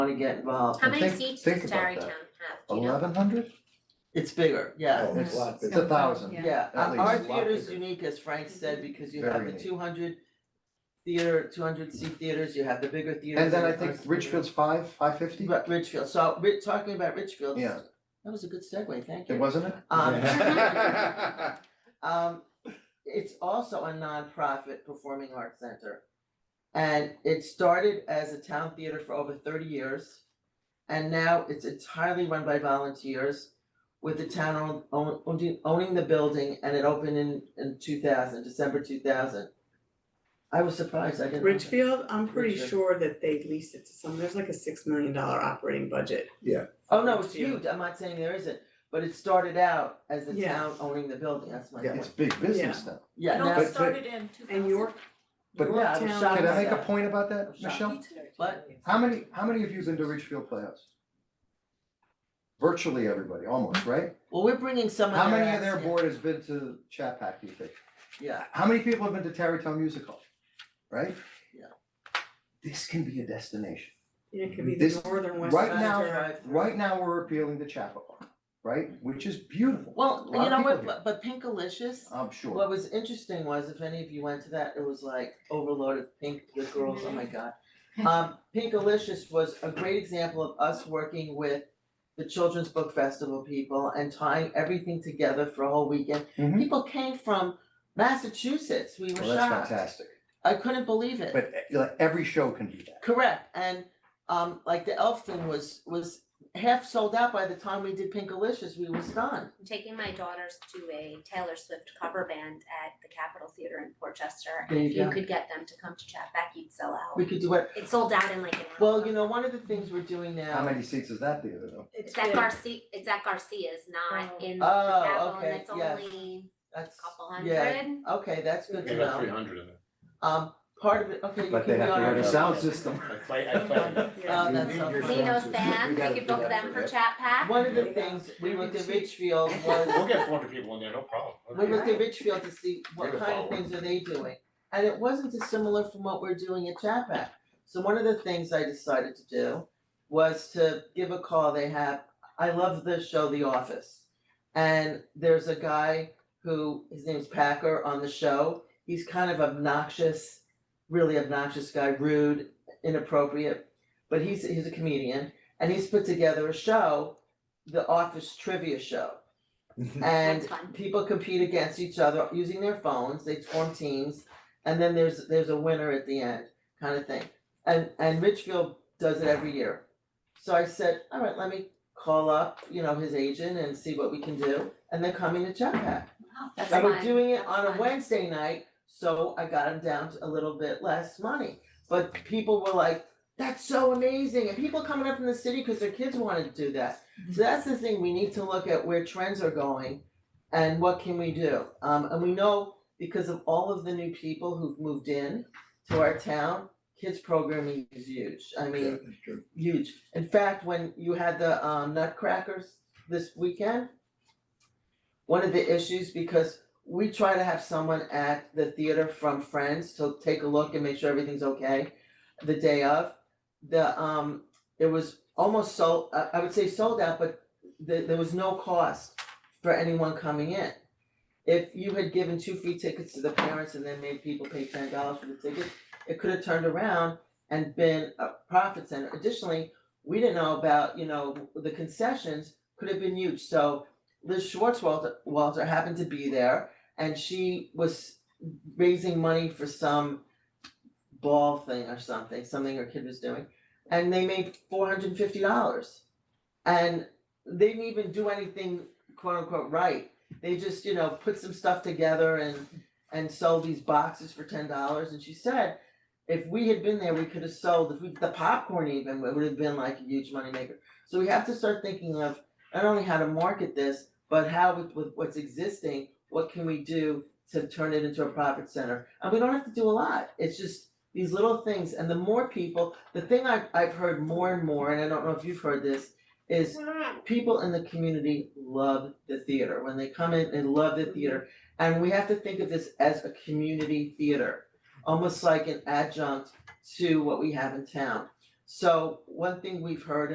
wanna get involved, How many think- seats think does about Tarrytown that. have? Do you know? Eleven hundred? it's bigger, yeah, Oh, it's a lot It's bigger. It's got a a lot, thousand. yeah. yeah, At Our- our least a lot theater's bigger. unique, as Frank said, because you have Very the unique. two hundred theater, two hundred seat theaters, you have the bigger theaters. And then I the think first theater. Richfield's five, five fifty? But Richfield, so we're talking about Richfield. Yeah. That was a good segue, thank you. It wasn't it? Uh, um, Um, um, it's also a nonprofit performing arts center. And it started as a town theater for over thirty years. And now it's entirely run by volunteers with the town own- own- owning owning the building and it opened in in two thousand, December two thousand. I was surprised, I didn't. know that. Richfield, I'm pretty Richfield. sure that they leased it to some, there's like a six million dollar operating budget. Oh, no, it's Yeah. huge, I'm not saying there isn't, but it started out as the Yeah. town owning the building, that's my Yeah, it's point. big business now. Yeah, It now, all But- started in two thousand. And York, But- Yorktown. Yeah, I was shocked Can I make a Yeah. point about that, Sure. Michelle? What? How many, how many of you have been to Richfield Playhouse? Virtually everybody, almost, right? well, we're bringing some of How many their of their acts in. board has been to Chapac, do you think? Yeah, How many people have been to Tarrytown Music Hall, right? Yeah. This can be a destination. Yeah, it could be the This- northern west. right side now- or- Right now, we're appealing to Chappaqua, right? Which is beautiful. well, A lot you of know people Oh. what, but here. but Pinkalicious, I'm sure. what was interesting was, if any of you went to that, it was like overloaded pink, the girls, oh my Mm-hmm. god. Um, Pinkalicious was a great example of us working with the Children's Book Festival people and tying everything together for a whole weekend. Mhm. People came from Massachusetts, we were Well, that's shocked, fantastic. I couldn't believe it. But uh, like every show can do that. Correct, and um like the elf thing was was half sold out by the time we did Pinkalicious, we were stunned. I'm taking my daughters to a Taylor Swift cover band at the Capitol Theater in Portchester. There And if you you go. could get them to come to Chatback, you'd sell out. We could do it, It sold out in like an hour. well, you know, one of the things we're doing How now, many seats is that the other though? It's at Garcia, it's at Garcia's, not in the Oh, Capitol, and okay, it's yes. only that's, a couple yeah, hundred. okay, that's good We to got three know. hundred in it. Um, part of it, okay, you But they can be have to on have our a show. sound system. I play, I play. Yeah. Oh, that's so funny. They know bands, we could book them for Chatback. One of the things we went to Richfield was, We'll get four hundred people in there, no problem. we went to Richfield to see what We're gonna kind of follow. things are they doing. And it wasn't dissimilar from what we're doing at Chapac. So one of the things I decided to do was to give a call they have, I love the show The Office. And there's a guy who, his name's Packer on the show, he's kind of obnoxious, really obnoxious guy, rude, inappropriate. But he's, he's a comedian and he's put together a show, The Office Trivia Show. And That's fun. people compete against each other using their phones, they form teams, and then there's there's a winner at the end, kind of thing. And and Richfield does it every year. So I said, all right, let me call up, you know, his agent and see what we can do, and they're coming to Jetpack. That's And we're fun. doing it That's on a fun. Wednesday night, so I got him down to a little bit less money. But people were like, that's so amazing, and people coming up from the city because their kids wanted to do that. Mm-hmm. So that's the thing, we need to look at where trends are going and what can we do? Um, and we know because of all of the new people who've moved in to our town, kids programming is huge, I mean, huge. In fact, when you had the um nutcrackers this weekend, one of the issues, because we try to have someone at the theater from Friends to take a look and make sure everything's okay the day of. The um, it was almost sold, I I would say sold out, but the there was no cost for anyone coming in. If you had given two free tickets to the parents and then made people pay ten dollars for the ticket, it could have turned around and been a profit center. Additionally, we didn't know about, you know, the concessions could have been huge, so Liz Schwartzwalter Walter happened to be there and she was raising money for some ball thing or something, something her kid was doing, and they made four hundred and fifty dollars. And they didn't even do anything quote unquote right. They just, you know, put some stuff together and and sold these boxes for ten dollars and she said if we had been there, we could have sold, if we, the popcorn even, it would have been like a huge moneymaker. So we have to start thinking of not only how to market this, but how with, with what's existing, what can we do to turn it into a profit center? And we don't have to do a lot, it's just these little things, and the more people, the thing I've, I've heard more and more, and I don't know if you've heard this, is people in the community love the theater, when they come in, they love the theater. And we have to think of this as a community theater almost like an adjunct to what we have in town. So one thing we've heard